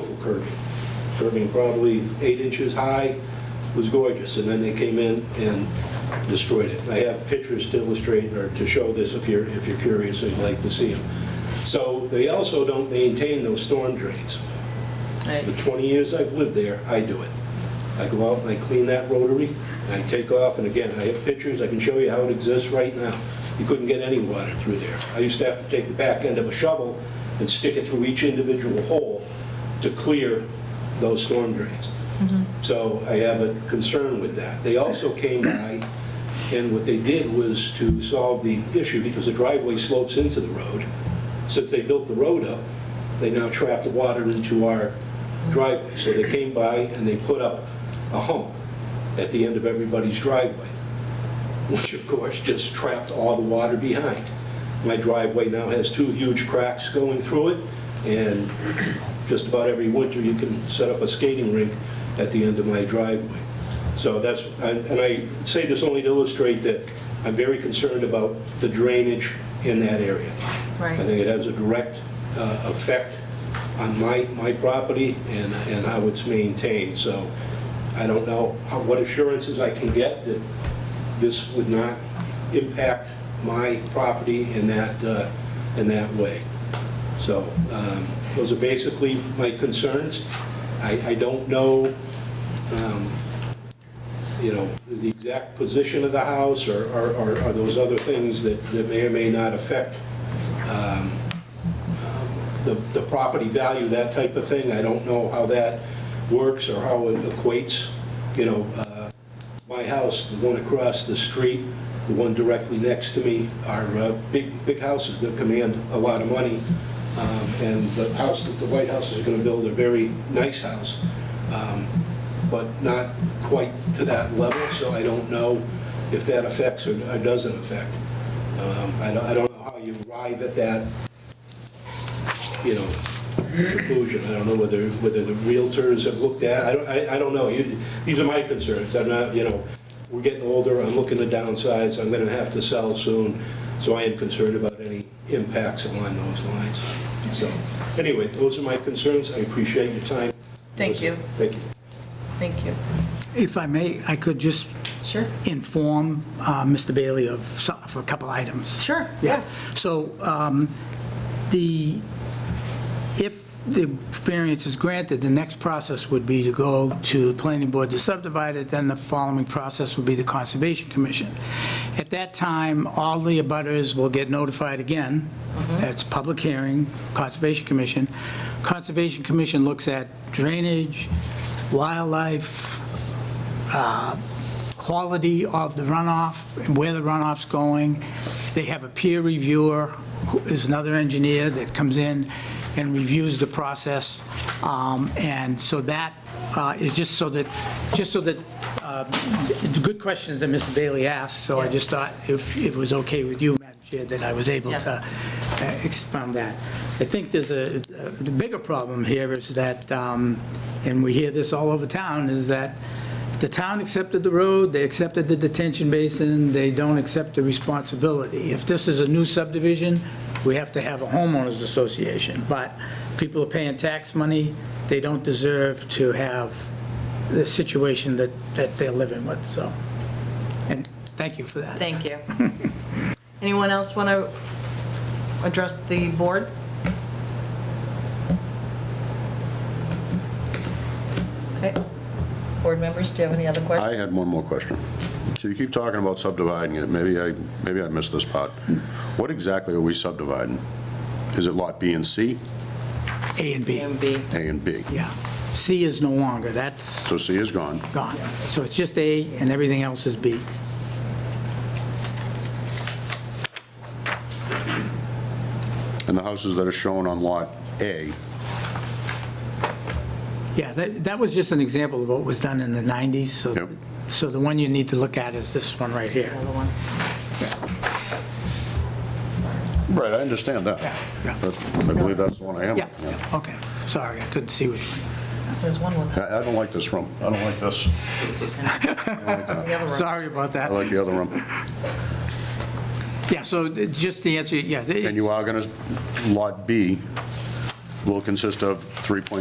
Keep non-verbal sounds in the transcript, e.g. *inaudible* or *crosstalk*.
beautiful curving. Curving probably eight inches high, was gorgeous, and then they came in and destroyed it. I have pictures to illustrate or to show this if you're, if you're curious and you'd like to see them. So they also don't maintain those storm drains. The 20 years I've lived there, I do it. I go out and I clean that rotary, and I take off, and again, I have pictures, I can show you how it exists right now. You couldn't get any water through there. I used to have to take the back end of a shovel and stick it through each individual hole to clear those storm drains. So I have a concern with that. They also came by, and what they did was to solve the issue, because the driveway slopes into the road. Since they built the road up, they now trap the water into our driveway. So they came by and they put up a hump at the end of everybody's driveway, *laughs* which of course just trapped all the water behind. My driveway now has two huge cracks going through it, and just about every winter, you can set up a skating rink at the end of my driveway. So that's, and and I say this only to illustrate that I'm very concerned about the drainage in that area. Right. I think it has a direct uh, effect on my, my property and, and how it's maintained. So I don't know how, what assurances I can get that this would not impact my property in that, uh, in that way. So um, those are basically my concerns. I, I don't know, um, you know, the exact position of the house or, or- or or those other things that, that may or may not affect um, um, the, the property value, that type of thing. I don't know how that works or how it equates, you know, uh, my house, the one across the street, the one directly next to me are uh, big, big houses that command a lot of money. Um, And the house that the White House is going to build, a very nice house, um, but not quite to that level, so I don't know if that affects or or doesn't affect. Um, I don't, I don't know how you arrive at that, you know, conclusion. I don't know whether, whether the realtors have looked at, I don't, I, I don't know. You- These are my concerns. I'm not, you know, we're getting older, I'm looking to downsize, I'm gonna have to sell soon, so I am concerned about any impacts along those lines. So, anyway, those are my concerns. I appreciate your time. Thank you. Thank you. Thank you. If I may, I could just Sure. inform uh, Mr. Bailey of, so- of a couple items. Sure, Yeah. yes. So um, the, if the variance is granted, the next process would be to go to the planning board to subdivide it, then the following process would be the Conservation Commission. At that time, all the abutters will get notified again. That's public hearing, Conservation Commission. Conservation Commission looks at drainage, wildlife, quality of the runoff, and where the runoff's going. They have a peer reviewer, who is another engineer that comes in and reviews the process. Um, And so that uh, is just so that, just so that, uh, it's good questions that Mr. Bailey asked, so I Yes. just thought if it was okay with you, Madam Chair, that I was able Yes. to uh, expound that. I think there's a, the bigger problem here is that, um, and we hear this all over town, is that the town accepted the road, they accepted the detention basin, they don't accept the responsibility. If this is a new subdivision, we have to have a homeowners association, but people are paying tax money, they don't deserve to have the situation that, that they're living with, so. And thank you for that. Thank you. Anyone else want to address the board? Okay. Board members, do you have any other I questions? had one more question. So you keep talking about subdividing it, maybe I, maybe I missed this part. What exactly are we subdividing? Is it lot B and C, A and A B, and B. A and B? yeah. C is no longer, that's So C is gone. gone. So it's just A and everything else is B. And the houses that are shown on lot A, Yeah, that, that was just an example of what was done in the 90s, so, Yep. so the one you need to look at is this one right here. The other one. right, I understand that. Yeah, yeah. But I believe that's the one I am. Yeah, Yeah. yeah, okay, sorry, I couldn't see which one. There's one with I I don't like this room, I don't like this. the other one. *laughs* Sorry about I that. like the other room. Yeah, so th- just the answer, yeah. And you are going to, lot B will consist of 3.6